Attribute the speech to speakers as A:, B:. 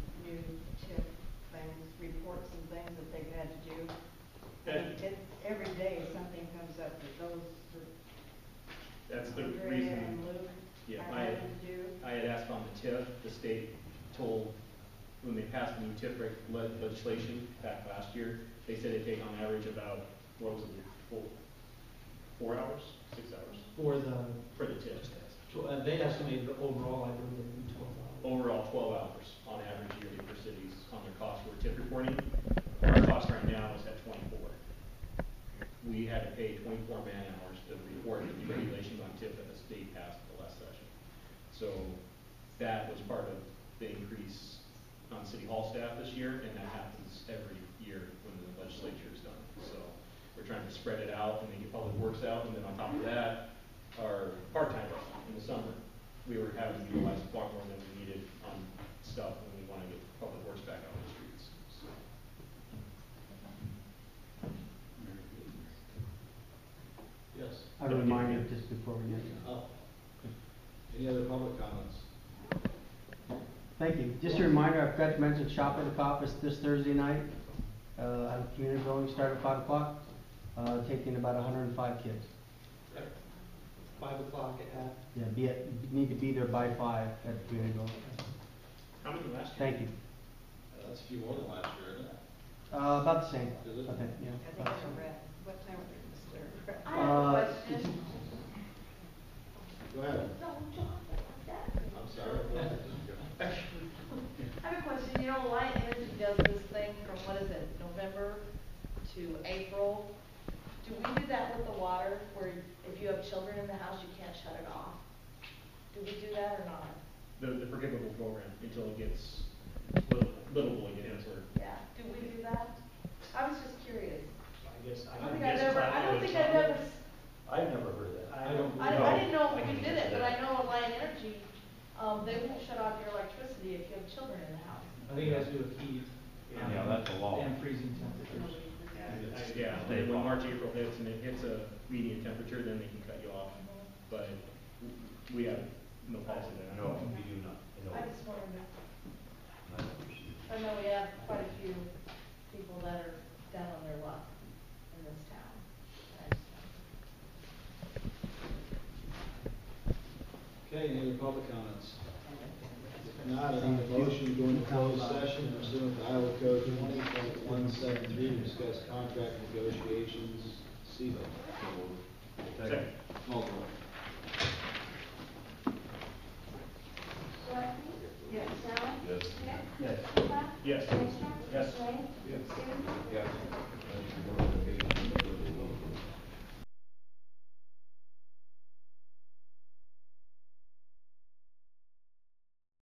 A: and reports and things that they've had to do.
B: That,
A: It, every day, something comes up that those, that
B: that's the
A: Andrea and
B: reason,
A: Luke
B: yeah,
A: are
B: I,
A: having to do.
B: I had asked on the TIF, the state told, when they passed the new TIF reg- le- legislation back last year, they said it take on average about, what was it, four, four hours, six hours
C: for the,
B: for the TIF.
C: tw- uh, they estimated overall, I believe, it'd be twelve hours.
B: Overall, twelve hours on average yearly for cities on their cost for TIF reporting. Our cost right now is at twenty-four. We had to pay twenty-four man hours to report the new regulations on TIF that the state passed at the last session. So that was part of the increase on city hall staff this year, and that happens every year when the legislature is done. So we're trying to spread it out and make public works out, and then on top of that, our part-timers in the summer, we were having to utilize far more than we needed on stuff when we want to get public works back out on the streets. So
D: Yes.
E: I would remind you just before we get,
D: Oh. Any other public comments?
E: thank you. Just a reminder, I forgot to mention shop at the cop is this Thursday night. Uh, at the community building, start at five o'clock, uh, taking about hundred and five kids.
C: Five o'clock at,
E: Yeah, be at, need to be there by five at the community building.
B: How many last year?
E: Thank you.
D: Uh, That's a few more than last year, isn't it?
E: Uh, about the same, I
D: Is it?
A: I
E: think, yeah.
A: think
E: about
A: it's
E: the
A: a
E: same.
A: red, what time would it start?
F: I have
E: Uh,
F: a question.
D: Go ahead.
F: Don't talk like that.
D: I'm sorry.
F: I have a question. You know, Light Energy does this thing from, what is it, November to April? Do we do that with the water, where if you have children in the house, you can't shut it off? Do we do that or not?
B: The, the forgivable program until it gets little, little boy gets where
F: Yeah, do we do that? I was just curious.
G: I guess,
F: I
G: I
F: don't
G: don't
F: think I've
G: guess.
F: ever, I don't think I've ever, s-
G: I've never heard that.
C: I don't-
F: I, I didn't know if you did it, but I know at Light Energy, um, they won't shut off your electricity if you have children in the house.
C: I think it has to do with heat. um,
G: Yeah, that's a law.
C: And freezing temperatures.
B: Yeah,
G: Stay
B: when
G: long.
B: March, April hits and it hits a median temperature, then they can cut you off, but we have no policy there.
G: No, we do not, no.
F: I just wanted to I know we have quite a few people that are down on their luck in this town. I just-
D: Okay, any other public comments? If not, I need a motion going to closed session pursuant to Iowa Code twenty point one seven three to discuss contract negotiations, CBO.
B: Second.
D: Call
A: Yes.
G: Yes.
B: Yes. Yes.
D: Yes.